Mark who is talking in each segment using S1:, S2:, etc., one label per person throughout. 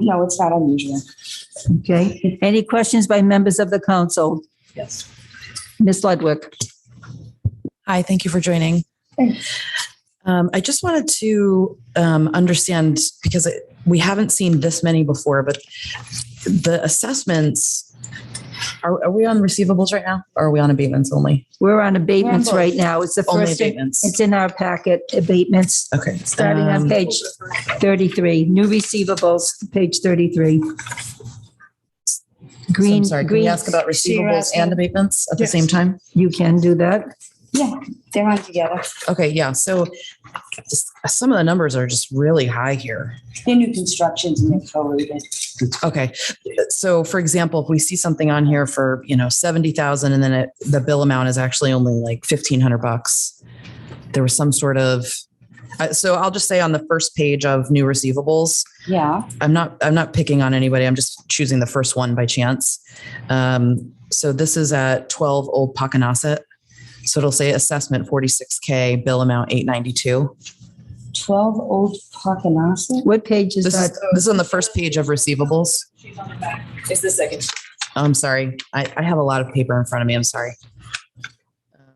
S1: No, it's not unusual.
S2: Okay. Any questions by members of the council?
S1: Yes.
S2: Ms. Ludwig?
S3: Hi, thank you for joining. Um, I just wanted to um, understand because it, we haven't seen this many before, but the assessments are, are we on receivables right now? Or are we on abatements only?
S2: We're on abatements
S1: We're on both.
S2: right now. It's the
S3: Only
S2: first, it's
S3: abatements.
S2: in our packet, abatements,
S3: Okay.
S2: starting on
S3: Um,
S2: page 33, new receivables, page 33.
S3: so I'm
S2: Green,
S3: sorry, can we
S2: green,
S3: ask about
S1: So you're
S3: receivables
S1: asking-
S3: and abatements at the
S1: Yes.
S3: same time?
S2: you can do that.
S1: They're on together.
S3: Okay, yeah, so just- some of the numbers are just really high here.
S1: They're new constructions and they're prorated.
S3: Okay, so for example, if we see something on here for, you know, seventy thousand and then it, the bill amount is actually only like fifteen hundred bucks. There was some sort of, uh, so I'll just say on the first page of new receivables,
S1: Yeah,
S3: I'm not, I'm not picking on anybody, I'm just choosing the first one by chance. Um, so this is at twelve Old Pocanasset. So it'll say assessment forty-six K, bill amount eight ninety-two.
S1: twelve old Parkinson.
S2: What page is
S3: This is,
S2: that?
S3: this is on the first page of receivables. Oh,
S4: It's the second.
S3: I'm sorry. I, I have a lot of paper in front of me. I'm sorry.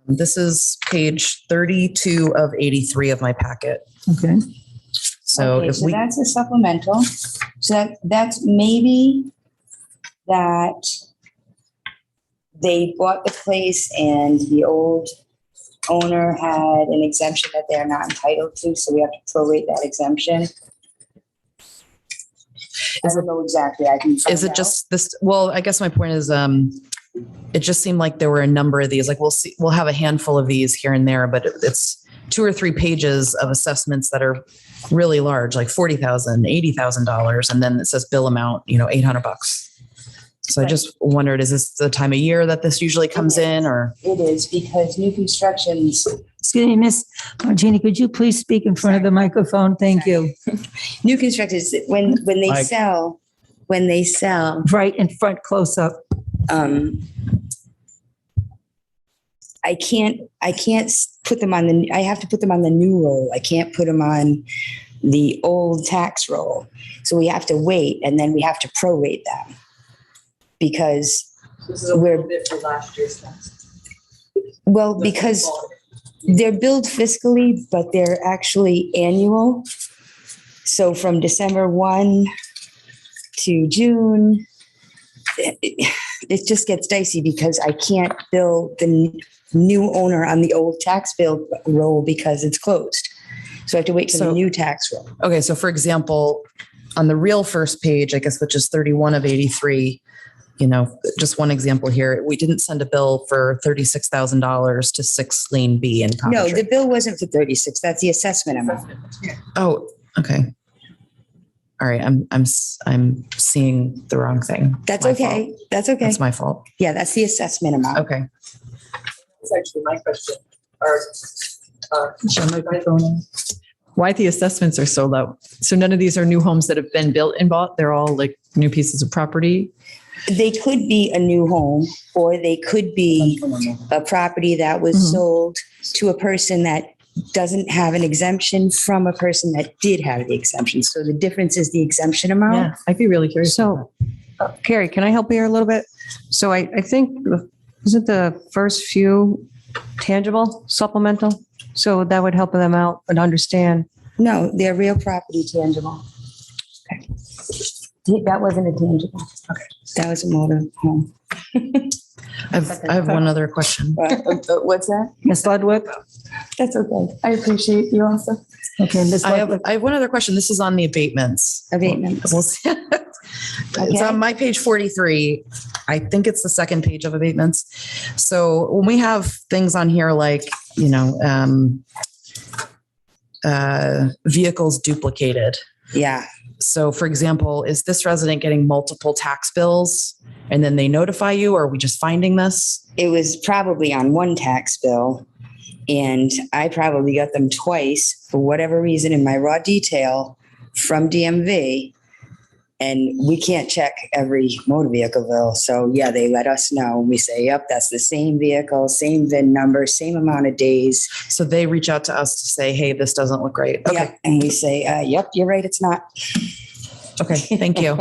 S3: Um, This is page 32 of 83 of my packet.
S2: Okay.
S3: So
S1: Okay,
S3: if
S1: So
S3: we,
S1: that's a supplemental. So that, that's maybe that they bought the place and the old owner had an exemption that they're not entitled to, so we have to prorate that exemption. I don't know exactly. I can
S3: is
S1: find
S3: it
S1: out.
S3: just this, well, I guess my point is, um, it just seemed like there were a number of these, like we'll see, we'll have a handful of these here and there, but it- it's two or three pages of assessments that are really large, like $40,000, $80,000. And then it says bill amount, you know, 800 bucks. So I
S1: Right.
S3: just wondered, is this the time of year that this usually comes
S1: Okay.
S3: in or?
S1: It is because new constructions
S2: Excuse me, Miss Martini, could you please speak in front of the microphone? Thank you.
S1: new constructors, when, when they
S5: Like-
S1: sell, when they sell,
S2: Right in front, close up.
S1: um, I can't, I can't s- put them on the, I have to put them on the new roll. I can't put them on the old tax roll. So we have to wait and then we have to prorate them. Because,
S4: This is a
S1: We're-
S4: little bit for last year's tax.
S1: well, because they're billed fiscally, but they're actually annual. So from December 1 to June, it- it it just gets dicey because I can't bill the n- new owner on the old tax bill roll because it's closed. So I have to wait for the
S3: So-
S1: new tax roll.
S3: Okay, so for example, on the real first page, I guess, which is 31 of 83, you know, just one example here, we didn't send a bill for $36,000 to 6 Lane B in
S1: No, the
S3: Coventry.
S1: bill wasn't for 36. That's the assessment amount.
S3: Oh, okay. All right, I'm, I'm, s- I'm seeing the wrong thing.
S1: That's
S3: My fault.
S1: okay. That's okay.
S3: That's my fault.
S1: Yeah, that's the assessment amount.
S3: Okay.
S4: That's actually my question. Or, uh,
S6: why the assessments are so low. So none of these are new homes that have been built and bought. They're all like new pieces of property.
S1: They could be a new home or they could be a property that was
S6: Mhm.
S3: Mm-hmm.
S1: sold to a person that doesn't have an exemption from a person that did have the exemption. So the difference is the exemption amount.
S6: I'd be really curious.
S7: So, uh, Carrie, can I help you here a little bit? So I, I think, the- isn't the first few tangible supplemental? So that would help them out and understand.
S1: No, they're real property tangible. Okay. That wasn't a tangible. Okay. That was a motor home.
S3: I have, I have one other question.
S4: Uh,
S1: What's that?
S2: Ms. Ludwig?
S1: That's okay.
S7: I appreciate you also.
S2: Okay, Ms.
S3: I have,
S2: Ludwig.
S3: I have one other question. This is on the abatements.
S1: Abatements.
S3: We'll see. It's um,
S1: Okay.
S3: on my page 43. I think it's the second page of abatements. So when we have things on here like, you know, um, uh, vehicles duplicated.
S1: Yeah,
S3: So for example, is this resident getting multiple tax bills and then they notify you, or are we just finding this?
S1: it was probably on one tax bill. And I probably got them twice for whatever reason in my raw detail from DMV. And we can't check every motor vehicle bill. So yeah, they let us know. We say, yep, that's the same vehicle, same VIN number, same amount of days.
S3: So they reach out to us to say, hey, this doesn't look right. Okay.
S1: Yep. And we say, uh, yep, you're right, it's not.
S3: Okay, thank you.